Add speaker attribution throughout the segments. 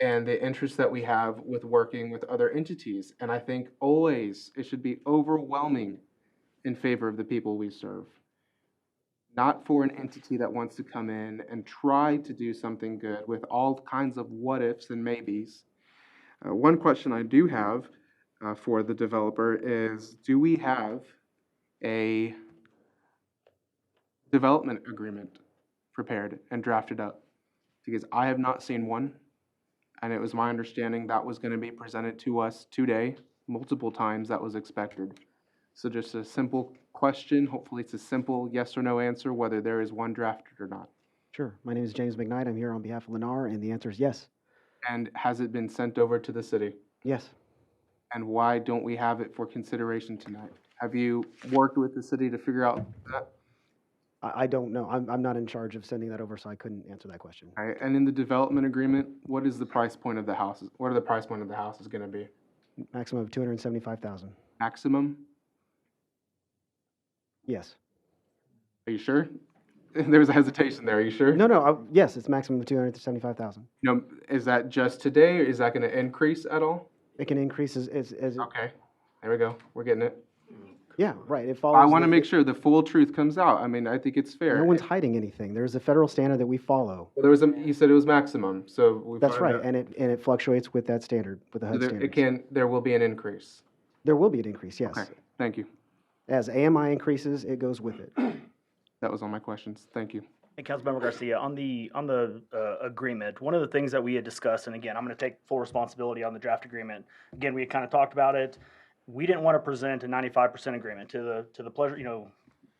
Speaker 1: and the interest that we have with working with other entities. And I think always it should be overwhelming in favor of the people we serve. Not for an entity that wants to come in and try to do something good with all kinds of what ifs and maybes. Uh, one question I do have uh, for the developer is do we have a development agreement prepared and drafted up? Because I have not seen one. And it was my understanding that was going to be presented to us today, multiple times that was expected. So just a simple question, hopefully it's a simple yes or no answer, whether there is one drafted or not.
Speaker 2: Sure. My name is James McKnight. I'm here on behalf of Lennar, and the answer is yes.
Speaker 1: And has it been sent over to the city?
Speaker 2: Yes.
Speaker 1: And why don't we have it for consideration tonight? Have you worked with the city to figure out that?
Speaker 2: I, I don't know. I'm, I'm not in charge of sending that over, so I couldn't answer that question.
Speaker 1: All right, and in the development agreement, what is the price point of the houses? What are the price point of the houses gonna be?
Speaker 2: Maximum of 275,000.
Speaker 1: Maximum?
Speaker 2: Yes.
Speaker 1: Are you sure? There was a hesitation there, are you sure?
Speaker 2: No, no. I, yes, it's maximum of 275,000.
Speaker 1: You know, is that just today, or is that gonna increase at all?
Speaker 2: It can increase as, as, as
Speaker 1: Okay, there we go, we're getting it.
Speaker 2: yeah, right. It follows.
Speaker 1: I wanna
Speaker 2: the-
Speaker 1: make sure the full truth comes out, I mean, I think it's fair.
Speaker 2: No one's hiding anything. There's a federal standard that we follow.
Speaker 1: There was a, you said it was maximum, so we.
Speaker 2: That's
Speaker 1: find
Speaker 2: right,
Speaker 1: out-
Speaker 2: and it and it fluctuates with that standard, with the
Speaker 1: so
Speaker 2: HUD
Speaker 1: there-
Speaker 2: standard.
Speaker 1: It can, there will be an increase.
Speaker 2: There will be an increase, yes.
Speaker 1: Okay, thank you,
Speaker 2: As AMI increases, it goes with it.
Speaker 1: that was all my questions, thank you.
Speaker 3: Hey, Councilmember Garcia, on the, on the uh, agreement, one of the things that we had discussed, and again, I'm going to take full responsibility on the draft agreement. Again, we had kind of talked about it. We didn't want to present a 95% agreement to the, to the pleasure, you know,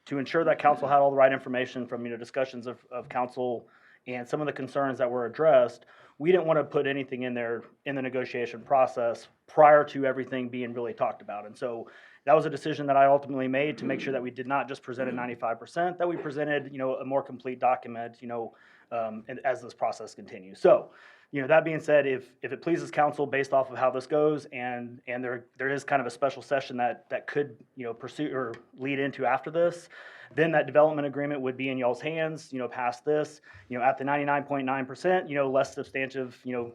Speaker 3: to ensure that council had all the right information from, you know, discussions of, of council and some of the concerns that were addressed. We didn't want to put anything in there in the negotiation process prior to everything being really talked about. And so that was a decision that I ultimately made to make sure that we did not just present a ninety-five percent, that we presented, you know, a more complete document, you know, um, and as this process continues. So, you know, that being said, if, if it pleases council based off of how this goes and, and there, there is kind of a special session that, that could, you know, pursue or lead into after this, then that development agreement would be in y'all's hands, you know, past this, you know, at the ninety-nine point nine percent, you know, less substantive, you know,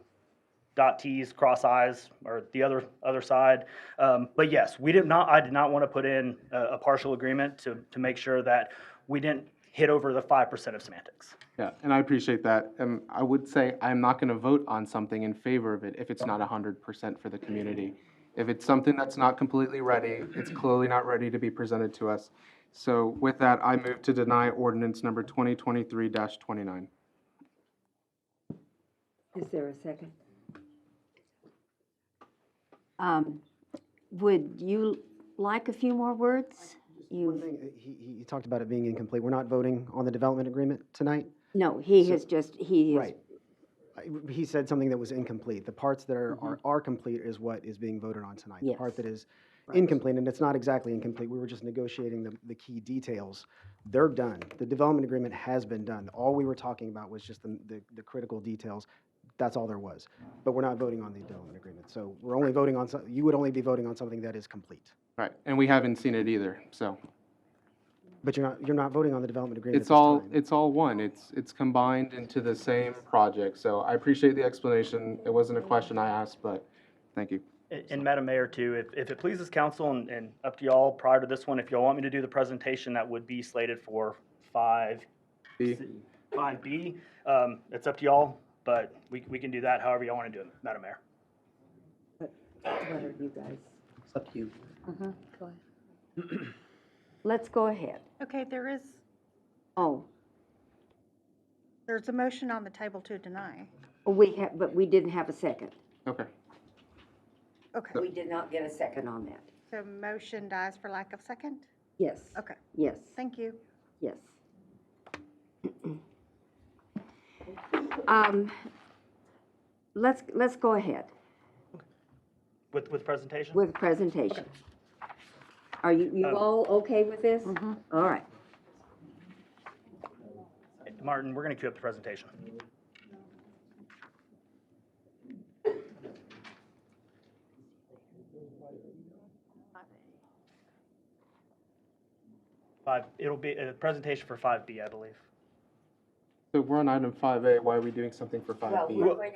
Speaker 3: dot T's, cross I's, or the other, other side. Um, but yes, we did not, I did not want to put in a, a partial agreement to, to make sure that we didn't hit over the five percent of semantics.
Speaker 1: Yeah, and I appreciate that. Um, I would say I'm not gonna vote on something in favor of it if it's not hundred percent for the community. If it's something that's not completely ready, it's clearly not ready to be presented to us. So with that, I move to deny ordinance number twenty twenty-three twenty-nine.
Speaker 4: Is there a second? Um, Would you like a few more words?
Speaker 2: One
Speaker 4: You,
Speaker 2: thing, uh, he, he- he talked about it being incomplete. We're not voting on the development agreement tonight.
Speaker 4: no, he has just, he is,
Speaker 2: Right. I- He said something that was incomplete. The parts that are, are, are complete is what is being voted on tonight. The part
Speaker 4: Yes.
Speaker 2: that is incomplete, and it's not exactly incomplete, we were just negotiating the, the key details. They're done. The development agreement has been done. All we were talking about was just the, the, the critical details. That's all there was. But we're not voting on the development agreement. So we're only voting on, some- you would only be voting on something that is complete.
Speaker 1: Right, and we haven't seen it either, so.
Speaker 2: But you're not, you're not voting on the development agreement at
Speaker 1: It's
Speaker 2: this
Speaker 1: all,
Speaker 2: time.
Speaker 1: it's all one. It's, it's combined into the same project, so I appreciate the explanation. It wasn't a question I asked, but thank you.
Speaker 3: And- And Madam Mayor, too, if, if it pleases council and, and up to y'all prior to this one, if y'all want me to do the presentation, that would be slated for five,
Speaker 1: B.
Speaker 3: five B. Um, it's up to y'all, but we, we can do that however y'all want to do it, Madam Mayor.
Speaker 4: what are you guys?
Speaker 5: It's up to you.
Speaker 4: Uh-huh, go ahead. Let's go ahead.
Speaker 6: Okay, there is,
Speaker 4: Oh,
Speaker 6: there's a motion on the table to deny.
Speaker 4: we have, but we didn't have a second.
Speaker 1: Okay.
Speaker 6: Okay,
Speaker 4: We did not get a second on that.
Speaker 6: so motion dies for lack of second?
Speaker 4: Yes,
Speaker 6: Okay,
Speaker 4: yes,
Speaker 6: thank you.
Speaker 4: yes. Um, Let's, let's go ahead.
Speaker 3: With, with presentation?
Speaker 4: With presentation. Are you, you
Speaker 3: Um,
Speaker 4: all okay with this? All right.
Speaker 3: Martin, we're going to queue up the presentation. Five, it'll be a presentation for five B, I believe.
Speaker 1: So we're on item five A, why are we doing something for five B?
Speaker 3: we're-